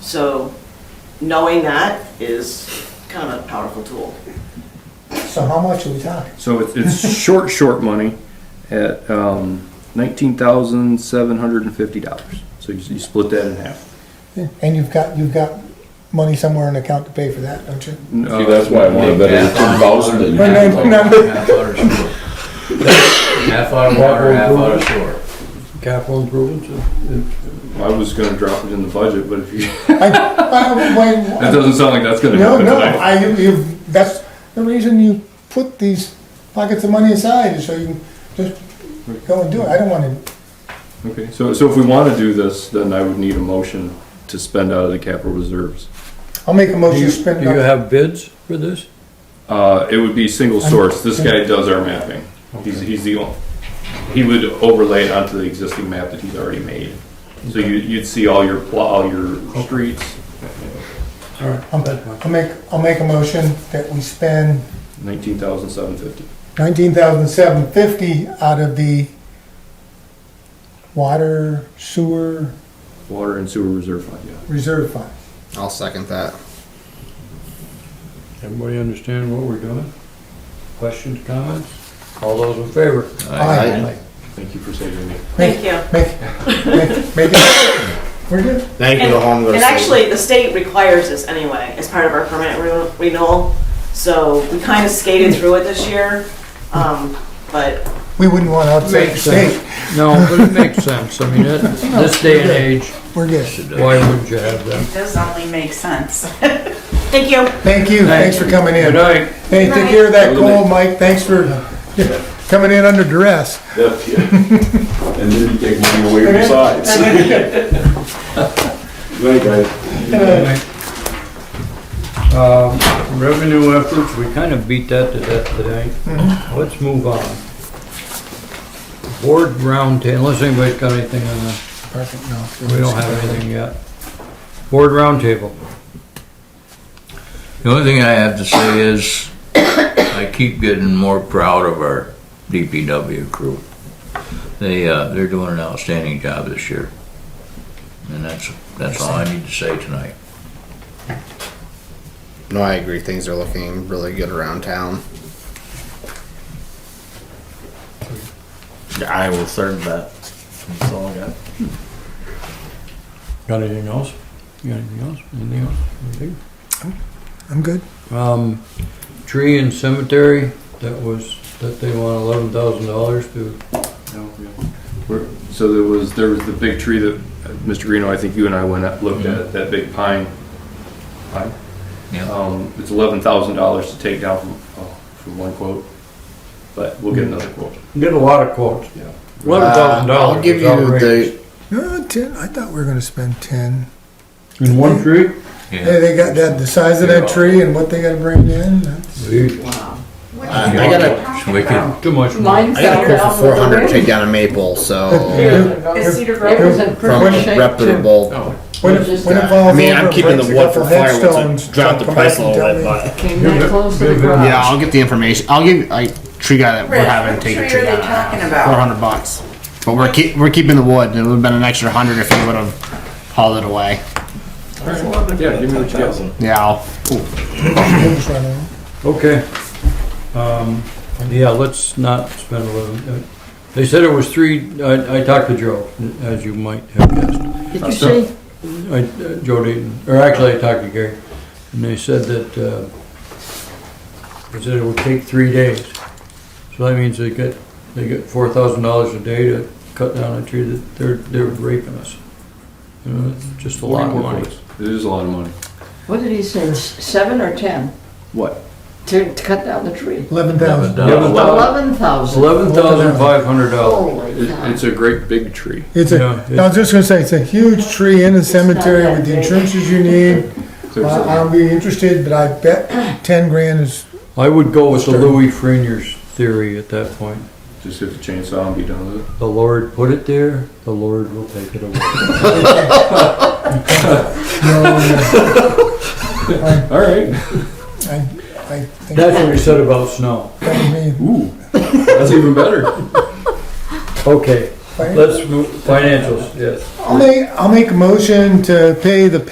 So knowing that is kind of a powerful tool. So how much are we talking? So it's, it's short, short money at um, nineteen thousand seven hundred and fifty dollars. So you, you split that in half. And you've got, you've got money somewhere in account to pay for that, don't you? Uh, See, that's why I want to bet it's two thousand and. Wait, no, no. Half out of shore. Half out of water, half out of shore. Capital improvements, I was going to drop it in the budget, but if you I- I- wait, that doesn't sound like that's going to No, happen no, tonight. I, you- you've, that's the reason you put these pockets of money aside, is so you can just go and do it. I don't wanna, Okay, so so if we want to do this, then I would need a motion to spend out of the capital reserves. I'll make a do motion you, to do spend, you up- have bids for this? Uh, it would be single source. This guy does our mapping. He's, he's the only, he would overlay it onto the existing map that he's already made. So you, you'd see all your, pl- all your streets, All right, I'll I'll make, I'll make a motion that we spend nineteen thousand seven fifty. nineteen thousand seven fifty out of the water sewer Water and sewer reserve fund, yeah. reserve fund. I'll second that. Everybody understand what we're doing? Questions, comments? All those in favor? Aye. Thank you for saving me. Thank you. Make, make, make it, we're good. Thank you, And- the home. And actually, the state requires this anyway, as part of our permanent re- renewal, so we kind of skated through it this year, um, but We wouldn't want outside the Makes sense. state. No, but it makes sense. I mean, it- this day and age, We're good. why wouldn't you have that? It does only make sense. thank you. Thank you, thanks for coming in. Good night. Hey, take care of that cold, Mike, thanks for coming in under duress. And then you take money away from sides. Right, guys. Uh, Revenue efforts, we kind of beat that to death today. Mm-hmm. Let's move on. Board roundtable, unless anybody's got anything on that. Perfect, no. We don't have anything yet. Board roundtable. The only thing I have to say is, I keep getting more proud of our DPW crew. They, uh, they're doing an outstanding job this year. And that's, that's all I need to say tonight. No, I agree. Things are looking really good around town. I will serve that. That's all I got. Got anything else? You got anything else? Anything else? Anything? I'm good. Um, tree and cemetery, that was, that they want eleven thousand dollars to, We're- So there was, there was the big tree that, uh, Mr. Greeno, I think you and I went up, looked at, that big pine. Pine? Yeah. Um, it's eleven thousand dollars to take down from, oh, from one quote, but we'll get another quote. get a lot of quotes. Yeah. Eleven thousand dollars. I'll give you the. No, ten, I thought we were gonna spend ten. In one tree? Hey, they got that, the size of that tree and what they gotta bring in, that's- I I got a. So we could- Too much money. Mine I got fell a quote down for with four the hundred to take wind. down a maple. So um, Is Cedar Grove Yeah. is in from pretty a shape. reputable. When it, when it falls I mean, over, I'm it keeping breaks the a wood for couple firewood. headstones, to Drop the come back price a and little tell bit, me. but Came that close to the Yeah. garage. yeah, I'll get the information. I'll give I tree guy that we're Rich, having what take a tree tree are they down. talking about? Four hundred bucks. But we're keep, we're keeping the wood. and It would have been an extra hundred if he would have hauled it away. Yeah, give me what you got. Yeah, I'll Things run out. Okay. Um, yeah, let's not spend eleven, uh, they said it was three, I, I talked to Joe, as you might have guessed. Uh, Did you see? I, uh, Joe Dayton, or actually I talked to Gary, and they said that, uh, they said it would take three days. So that means they get, they get four thousand dollars a day to cut down a tree that they're, they're raping us. You know, it's just a lot of money. It is a lot of money. What did he say, s- seven or 10? What? To to cut down the tree? Eleven thousand. Eleven- 11,000. Eleven thousand five hundred dollars. Holy It, cow. it's a great big tree. It's Yeah, a, I was just gonna say, it's a huge tree in the cemetery with the entrances you need. I- I'll be interested, but I bet ten grand is, I would go with the Louis Freinier's theory at that point. Just hit the chainsaw and be done with it. The Lord put it there, the Lord will take it away. All right. I, I think That's what he said about snow. that would be. Ooh, that's even better. Okay, let's, move financials, yes. I'll make, I'll make a motion to pay the